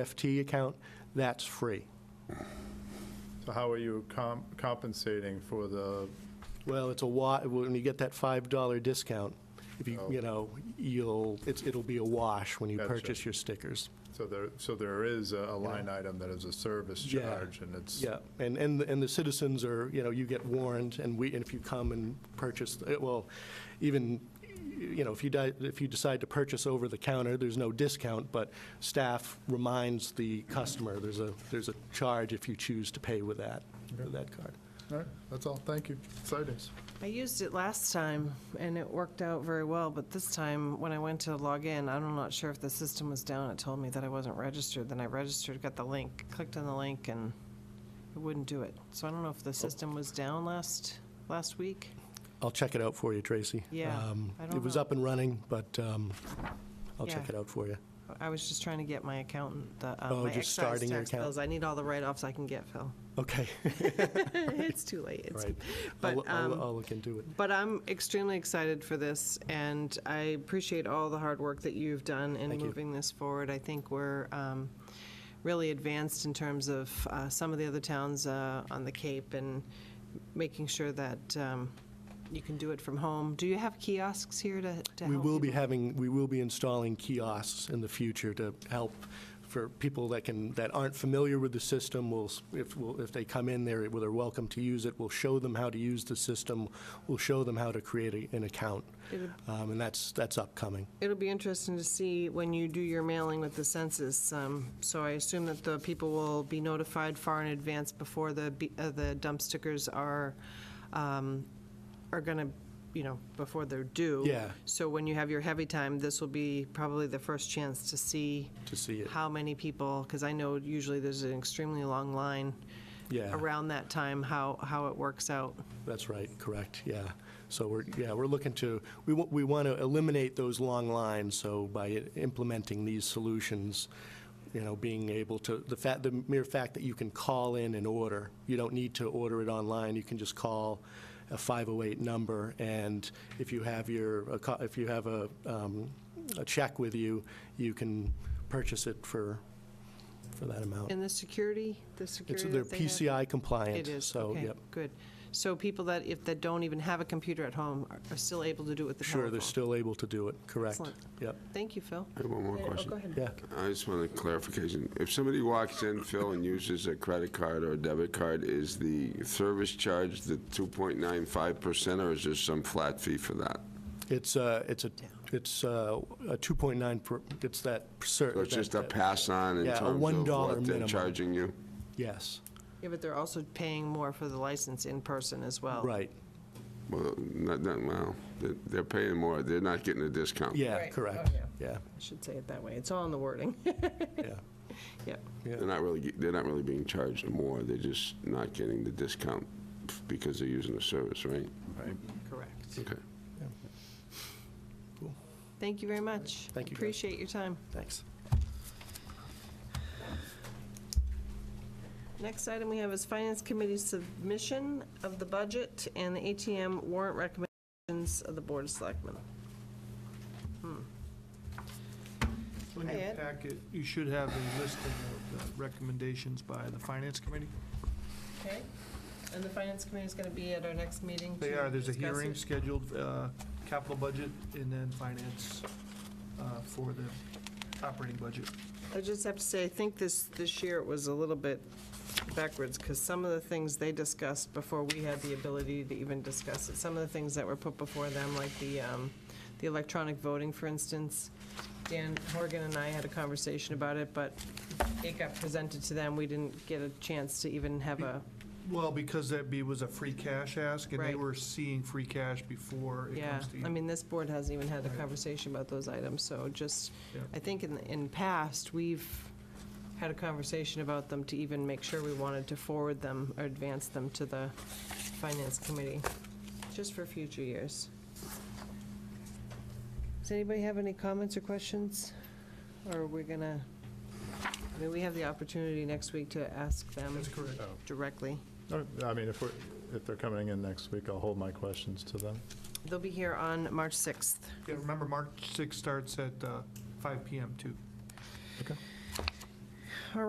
FT account, that's free. So how are you com- compensating for the, Well, it's a wa, when you get that $5 discount, if you, Oh. you know, you'll, it's, it'll be a wash when you Gotcha. purchase your stickers. so there, so there is a a line item that is a service Yeah. charge, and it's, Yeah, and, and, the- and the citizens are, you know, you get warned, and we, and if you come and purchase, eh, well, even, you know, if you di, if you decide to purchase over the counter, there's no discount, but staff reminds the customer, there's a, there's a charge if you choose to pay with that, with that card. all right, that's all, thank you, exciting. I used it last time, and it worked out very well, but this time, when I went to log in, I'm not sure if the system was down, it told me that I wasn't registered, then I registered, got the link, clicked on the link, and it wouldn't do it. So I don't know if the system was down last, last week. I'll check it out for you, Tracy. Yeah, Um, I don't It was know. up and running, but um, I'll check Yeah. it out for you. I was just trying to get my accountant, the, uh, Oh, my just excise starting your tax account. bills. I need all the write-offs I can get, Phil. Okay, It's too late. It's- right. but, I'll- I'll um, I'll look into it. But I'm extremely excited for this, and I appreciate all the hard work that you've done in Thank you. moving this forward. I think we're um, really advanced in terms of uh, some of the other towns uh, on the Cape and making sure that um, you can do it from home. Do you have kiosks here to to help? We will be people? having, we will be installing kiosks in the future to help for people that can, that aren't familiar with the system, will, if, we'll- if they come in there, well, they're welcome to use it, we'll show them how to use the system, we'll show them how to create a- an account, It'll- Um, and that's, that's upcoming. It'll be interesting to see when you do your mailing with the census. um, So I assume that the people will be notified far in advance before the, be- uh, the dump stickers are, um, are going to, you know, before they're due. Yeah. So when you have your heavy time, this will be probably the first chance to see. To see it. How many people, because I know usually there's an extremely long line. Yeah. Around that time, how, how it works out. That's right, correct, yeah. So we're, yeah, we're looking to, we, wa- we want to eliminate those long lines, so by i- implementing these solutions, you know, being able to, the fact, the mere fact that you can call in and order, you don't need to order it online, you can just call a 508 number, and if you have your, a co- if you have a, um, a check with you, you can purchase it for, for that amount. And the security, the It's, security they're that they have? PCI compliant, It is, so, okay, yep. good. So people that, if, that don't even have a computer at home are- are still able to do it with the Sure, telephone? they're still able to do it, correct. Excellent. Yep, Thank you, Phil. I have one more Oh, question. go ahead. yeah. I just want a clarification. If somebody walks in, Phil, and uses a credit card or a debit card, is the service charge the 2.95% or is there some flat fee for that? It's a, it's a, it's uh, a 2.9, per- it's that. So it's just a pass on in Yeah, a terms of $1 what they're minimum. charging you? Yes, Yeah, but they're also paying more for the license in person as well. right, Well, not, not, well, they're- they're paying more, they're not getting a discount. yeah, Right, correct, oh, yeah. yeah, I should say it that way. It's all in the wording. yeah, Yep. They're not really, ge- they're not really being charged more, they're just not getting the discount because they're using the service, right? Correct. Okay. Thank you very much. Thank you, guys. Appreciate your time. thanks. Next item we have is Finance Committee submission of the budget and the ATM warrant recommendations of the Board of Selectmen. In Hi, your Ed. packet, you should have a listing of the recommendations by the Finance Committee. Okay. And the Finance Committee is going to be at our next meeting They to are, there's a discuss hearing it. scheduled, uh, capital budget and then finance uh, for the operating budget. I just have to say, I think this, this year it was a little bit backwards, because some of the things they discussed before we had the ability to even discuss it, some of the things that were put before them, like the, um, the electronic voting, for instance, Dan Horgan and I had a conversation about it, but it got presented to them, we didn't get a chance to even have a, Well, because that be, was a free cash ask, and they Right. were seeing free cash before it yeah. comes to you. I mean, this board hasn't even had a Right. conversation about those items, so just, Yeah. I think in, in past, we've had a conversation about them to even make sure we wanted to forward them or advance them to the finance committee, just for future years. Does anybody have any comments or questions? Or are we gonna, I mean, we have the opportunity next week to ask them That's correct. directly. All right, I mean, if we're, if they're coming in next week, I'll hold my questions to them. They'll be here on March 6th. Yeah, remember, March 6th starts at uh, 5 PM too. Okay.